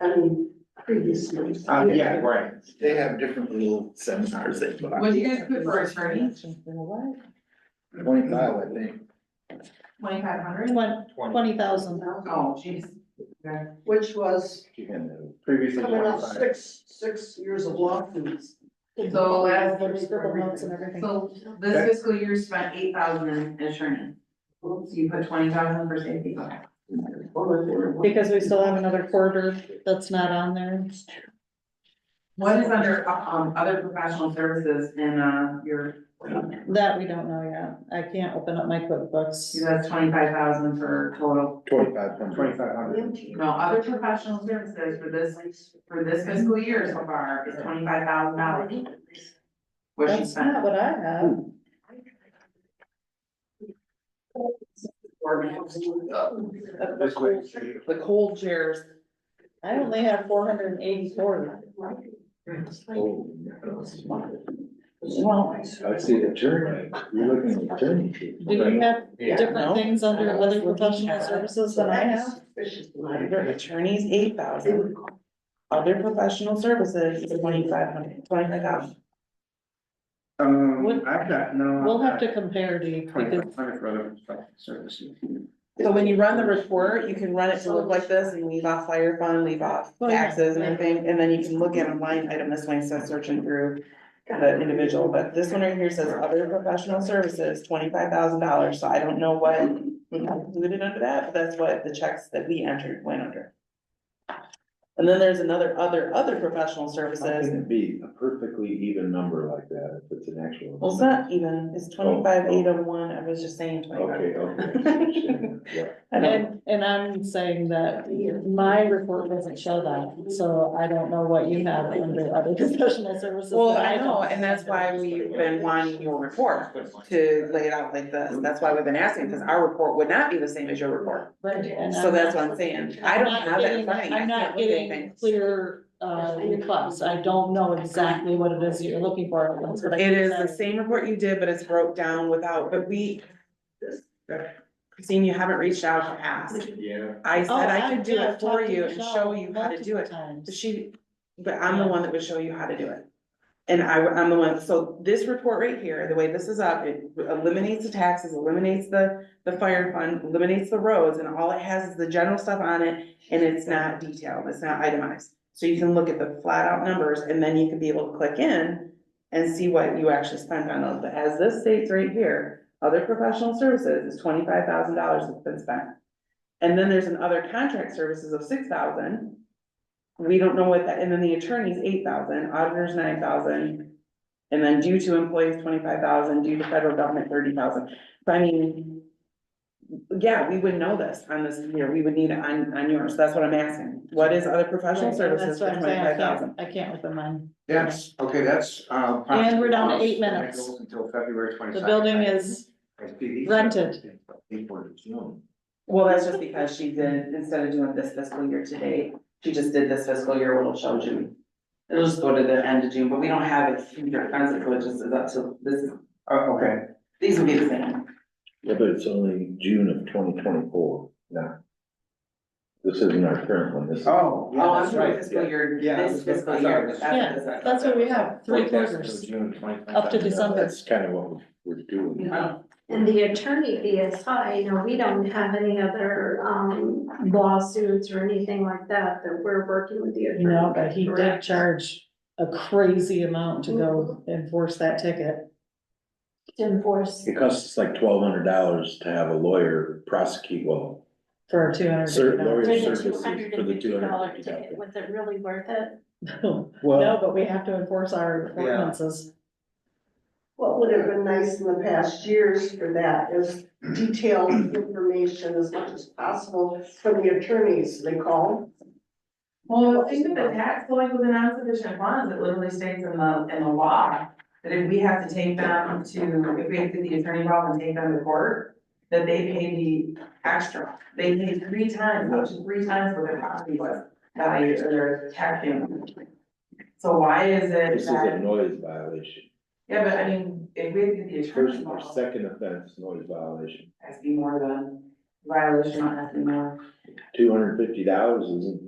I mean, previously. Uh, yeah, right. They have different little seminars they put on, What do you guys put for attorney? twenty-five, I think. Twenty-five hundred? Twenty, twenty thousand. Oh, jeez. Which was Previously coming up twenty-five. six, six years of lawsuits. So that's- The scribble notes and everything. So this fiscal year spent eight thousand in attorney. So you put twenty thousand for safety. Okay. Because we still have another quarter that's not on there. What is under, um, other professional services in, uh, your, That we don't know yet. I can't open up my QuickBooks. that's twenty-five thousand for total. Twenty-five hundred. Twenty-five hundred. No, other professional services for this, for this fiscal year so far is twenty-five thousand dollars. What she That's not spent. what I have. This way, she- The cold chairs. I only have four hundred and eighty-four. I see the attorney, you're looking at the attorney. chief. Do you have Yeah. different things under other professional services than I have? Your attorney's eight thousand, other professional services is twenty-five hundred, twenty-five thousand. Um, What- I've got, no. We'll have to compare to you because Twenty-five hundred for other professional services. So when you run the report, you can run it to look like this and leave off fire fund, leave off Well, yeah. taxes and everything, and then you can look at a line item this way, so searching through. The individual, but this one right here says other professional services, twenty-five thousand dollars, so I don't know what included under that, but that's what the checks that we entered went under. And then there's another other other professional How services, can it be a perfectly even number like that if it's an actual? well, it's not even, it's twenty-five eight oh one, I was just saying Okay, twenty-five. okay. Yeah. I don't- and and I'm saying that my report doesn't show that, so I don't know what you have under other professional services. Well, that I know, don't. and that's why we've been wanting your report to lay it out like this. That's why we've been asking, because our report would not be the same as your report. But- and So I'm that's not- what I'm saying. I don't I'm not have it in getting- front of me. I I'm can't not look at getting anything. clear, uh, requests. I don't know exactly what it is that you're looking for. That's what I It is the said. same report you did, but it's broke down without, but we. Christine, you haven't reached out to ask. Yeah. I said Oh, I could do did. it I've for talked to you and show Michelle you how to do multiple it. times. But She, but I'm the one that would show you how to do it. And I, I'm the one, so this report right here, the way this is up, it eliminates the taxes, eliminates the, the fire fund, eliminates the roads, and all it has is the general stuff on it. And it's not detailed, it's not itemized, so you can look at the flat out numbers, and then you can be able to click in and see what you actually spent on those, but as this states right here, other professional services is twenty-five thousand dollars that's been spent. And then there's an other contract services of six thousand. We don't know what that, and then the attorney's eight thousand, auditors nine thousand. And then due to employees twenty-five thousand, due to federal government thirty thousand, but I mean. Yeah, we would know this on this here, we would need it on, on yours, that's what I'm asking, what is other professional Right, and services That's for what I'm saying. I twenty-five thousand? can't, I can't open mine. That's, okay, that's, uh. And we're down to possibly- eight minutes. Until February The twenty-second. building is, rented. Well, that's just because she did, instead of doing this fiscal year to date, she just did this fiscal year, it'll show June. It'll just go to the end of June, but we don't have it here, as it just is up to this, Uh, okay, these will be the same. Yeah, but it's only June of twenty twenty-four, now. This isn't our current one, this is. oh, Oh, yeah, I'm that's doing right. fiscal year, Yeah, this that's what- fiscal that's what I year, was- but that's- that's what we have, three quarters. June 25th. Up to December. That's kind of what we're doing. And the attorney BSI, you know, we don't have any other um lawsuits or anything like that, that we're working with the attorney. no, but he did Correct. charge a crazy amount to go enforce that ticket. To enforce. It costs us like twelve hundred dollars to have a lawyer prosecute, well, For two hundred. Sir, Lori- Doing a services for the $250 $250. ticket, Was it really worth it? No, well, but we have to enforce our ordinances. What would have been nice in the past years for that is detailed information as much as possible from the attorneys, they call. Well, think of the tax going with the non-sufficient funds, it literally states in the, in the law, that if we have to take them to, if we have to get the attorney involved and take them to court, that they pay the extra, they pay three times, up to three times what their property was, value or their tax payment. So why is this it is a that, noise violation. yeah, but I mean, if we have to get the attorney First or involved, it second offense, noise violation, has to be more than violation, not has to be more. two hundred and fifty dollars isn't